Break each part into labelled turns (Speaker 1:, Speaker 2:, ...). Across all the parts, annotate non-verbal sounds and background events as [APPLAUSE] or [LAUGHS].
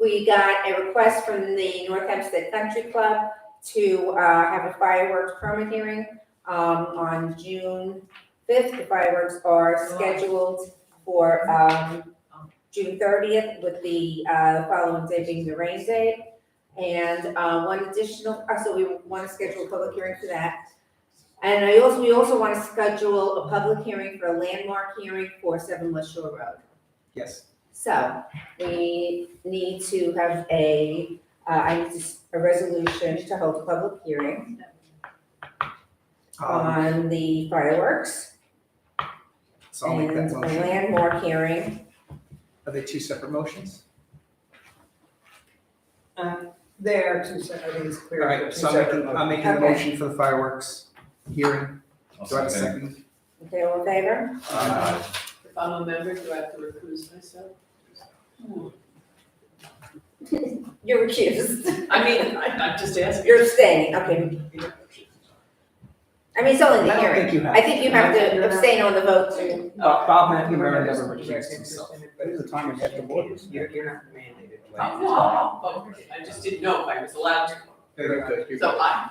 Speaker 1: we got a request from the North Hempstead Country Club to, uh, have a fireworks permit hearing, um, on June fifth. The fireworks are scheduled for, um, June thirtieth with the, uh, following day being the rain day. And, uh, one additional, uh, so we want to schedule a public hearing for that. And I also, we also want to schedule a public hearing for a landmark hearing for Seven West Shore Road.
Speaker 2: Yes.
Speaker 1: So we need to have a, uh, I need to s- a resolution to hold a public hearing
Speaker 2: Um,
Speaker 1: on the fireworks
Speaker 2: so I'll
Speaker 1: and
Speaker 2: make that
Speaker 1: a
Speaker 2: motion.
Speaker 1: landmark hearing.
Speaker 2: Are they two separate motions?
Speaker 3: There, two separate, I think it's
Speaker 2: All
Speaker 3: clear.
Speaker 2: right,
Speaker 3: two
Speaker 2: so I'm making,
Speaker 3: separate
Speaker 2: I'm making a
Speaker 1: Okay.
Speaker 2: motion for the fireworks hearing. Do I have a second?
Speaker 1: Okay, all in favor?
Speaker 2: Uh,
Speaker 4: If I'm a member, do I have to recuse myself?
Speaker 1: You're accused.
Speaker 4: [LAUGHS] I mean, I, I'm just asking.
Speaker 1: You're abstaining, okay. I mean, it's only
Speaker 2: I
Speaker 1: the
Speaker 2: don't
Speaker 1: hearing.
Speaker 2: think you have.
Speaker 1: I think you have to abstain on the vote too. [LAUGHS]
Speaker 4: Oh,
Speaker 2: Bob Bob
Speaker 3: You were
Speaker 2: McNamara
Speaker 3: just-
Speaker 2: never
Speaker 3: you were
Speaker 2: recused
Speaker 3: just
Speaker 2: himself.
Speaker 3: interested,
Speaker 2: But
Speaker 3: but
Speaker 2: it was a time when you had to vote.
Speaker 3: You're, you're not mandated.
Speaker 4: Oh, no, oh, okay. I just didn't know if I was allowed to.
Speaker 2: Very good, you're
Speaker 4: So I,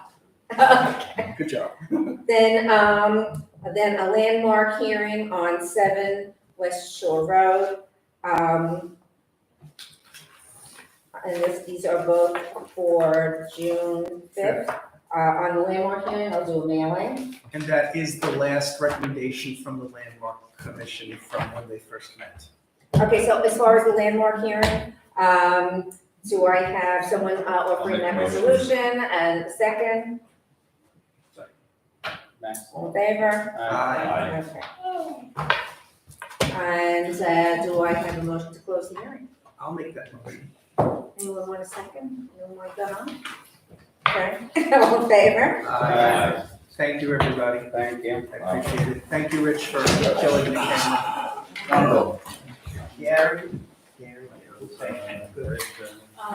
Speaker 2: good. Good job.
Speaker 1: Then, um, then a landmark hearing on seven West Shore Road. Um, and this, these are both for June fifth. Uh, on the landmark hearing, I'll do a mailing.
Speaker 2: And that is the last recommendation from the landmark commission from when they first met.
Speaker 1: Okay, so as far as the landmark hearing, um, do I have someone uh, offering
Speaker 5: I'll
Speaker 1: that
Speaker 5: make a motion.
Speaker 1: resolution and second, all in favor?
Speaker 2: Aye.
Speaker 1: Okay. And uh, do I have a motion to close the hearing?
Speaker 2: I'll make that motion.
Speaker 1: Anyone want a second? Anyone want to go on? Okay, [LAUGHS] all in favor?
Speaker 2: Aye. Thank you, everybody.
Speaker 6: Thank you.
Speaker 2: I appreciate it. Thank you, Rich, for killing the camera. Gary, Gary.
Speaker 6: Good.